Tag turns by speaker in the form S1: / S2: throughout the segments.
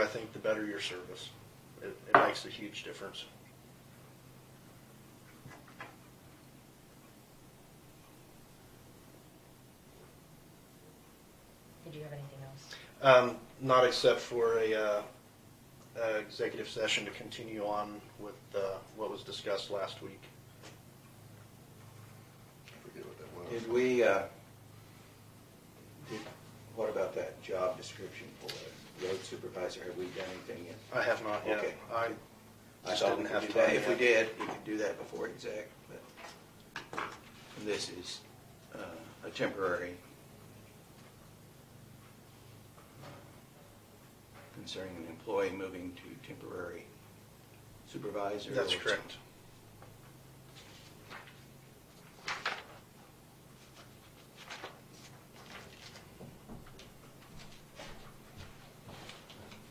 S1: I think the better your service. It, it makes a huge difference.
S2: Did you have anything else?
S1: Um, not except for a, uh, uh, executive session to continue on with, uh, what was discussed last week.
S3: I forget what that was.
S4: Did we, uh, did, what about that job description for the road supervisor? Have we done anything yet?
S1: I have not yet.
S4: Okay.
S1: I
S4: I
S1: just
S4: thought we
S1: didn't
S4: could
S1: have
S4: do that.
S1: time
S4: If we
S1: yet.
S4: did, we could do that before exec, but this is uh, a temporary uh, concerning an employee moving to temporary supervisor.
S1: That's
S4: or-
S1: correct.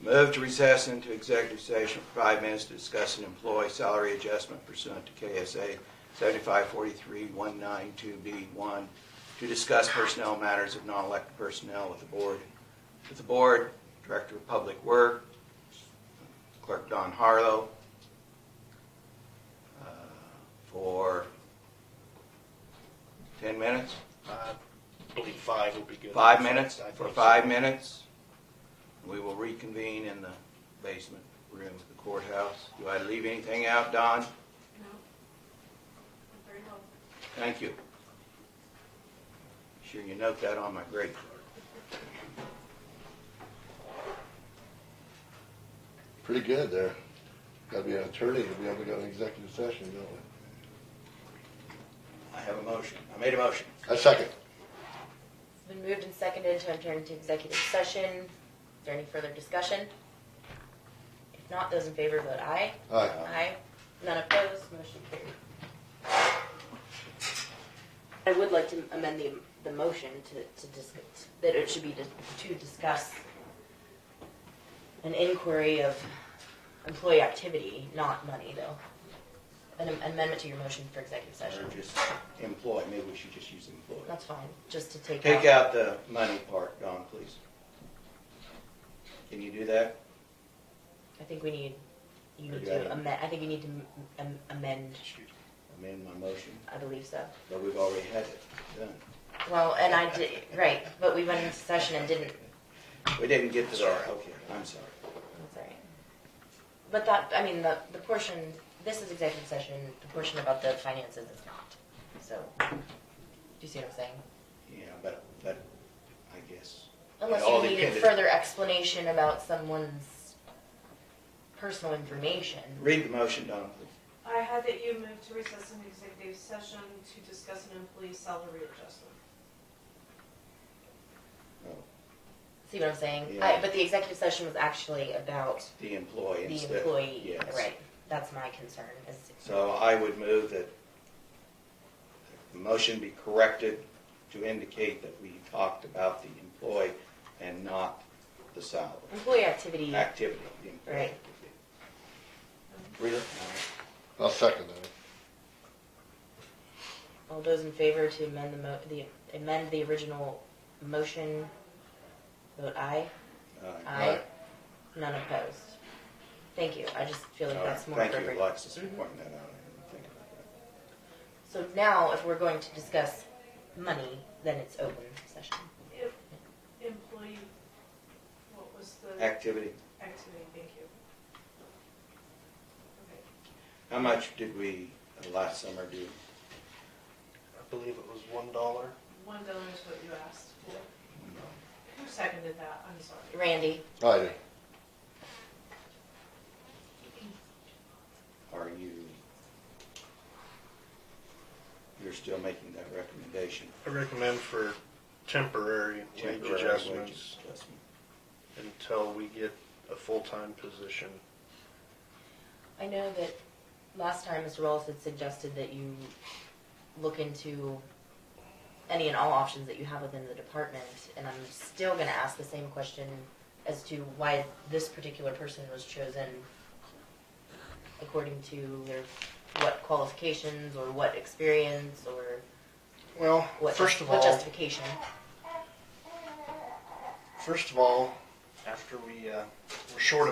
S4: Move to recess into executive session for five minutes to discuss an employee salary adjustment pursuant to KSA 7543192B1 to discuss personnel matters of non-elected personnel with the board. With the board, Director of Public Work, Clerk Don Harlow, uh, for 10 minutes?
S1: I believe five would be good.
S4: Five minutes,
S1: I
S4: for
S1: think
S4: five
S1: so.
S4: minutes. We will reconvene in the basement room of the courthouse. Do I leave anything out, Don?
S5: No. Very helpful.
S4: Thank you. Sure you note that on my grade card.
S3: Pretty good there. Gotta be an attorney to be able to go to executive session, don't we?
S4: I have a motion. I made a motion.
S3: I second.
S2: It's been moved and seconded to enter into executive session. Is there any further discussion? If not, those in favor vote aye.
S3: Aye.
S2: Aye. None opposed, motion carried. I would like to amend the, the motion to, to discuss, that it should be to, to discuss an inquiry of employee activity, not money, though. An amendment to your motion for executive session.
S4: Or just employ, maybe we should just use employ.
S2: That's fine, just to take out.
S4: Take out the money part, Don, please. Can you do that?
S2: I think we need, you
S4: Are
S2: need
S4: you
S2: to
S4: adding-
S2: amend, I think you need to m- am- amend,
S4: Amend my motion,
S2: I believe so.
S4: but we've already had it done.
S2: Well, and I did, right, but we went into session and didn't,
S4: We didn't get to that. Okay, I'm sorry.
S2: that's all right. But that, I mean, the, the portion, this is executive session, the portion about the finances is not, so, do you see what I'm saying?
S4: Yeah, but, but I guess.
S2: Unless
S4: all
S2: you needed
S4: depended-
S2: further explanation about someone's personal information.
S4: Read the motion, Don, please.
S5: I had that you moved to recess an executive session to discuss an employee salary adjustment.
S4: No,
S2: See what I'm saying?
S4: Yeah.
S2: I, but the executive session was actually about
S4: The employee
S2: the
S4: instead.
S2: employee,
S4: Yes.
S2: right? That's my concern, is
S4: So I would move that the motion be corrected to indicate that we talked about the employee and not the salary,
S2: Employee activity,
S4: activity. the employee
S2: Mm-hmm. Right.
S4: activity.
S3: Read it.
S4: All right.
S3: I'll second that.
S2: all those in favor to amend the mo, the, amend the original motion, vote aye.
S4: All right.
S2: Aye. None opposed. Thank you, I just feel like
S4: All right.
S2: that's more appropriate.
S4: Thank you, Alexis, for
S2: Mhm.
S4: pointing that out. I didn't think about that.
S2: So now, if we're going to discuss money, then it's open session.
S5: If employee, what was the
S4: Activity.
S5: activity? Thank you. Okay.
S4: How much did we uh, last summer do?
S1: I believe it was one dollar.
S5: One dollar is what you asked for. Who seconded that? I'm sorry.
S2: Randy,
S3: I do.
S4: Are you, you're still making that recommendation?
S1: I recommend for temporary wage
S4: temporary wage
S1: adjustments
S4: adjustment?
S1: until we get a full-time position.
S2: I know that last time Mr. Wallace had suggested that you look into any and all options that you have within the department, and I'm still gonna ask the same question as to why this particular person was chosen according to their, what qualifications, or what experience, or
S1: Well,
S2: what,
S1: first
S2: just-
S1: of
S2: what
S1: all,
S2: justification.
S1: first of all, after we, uh, we're short of.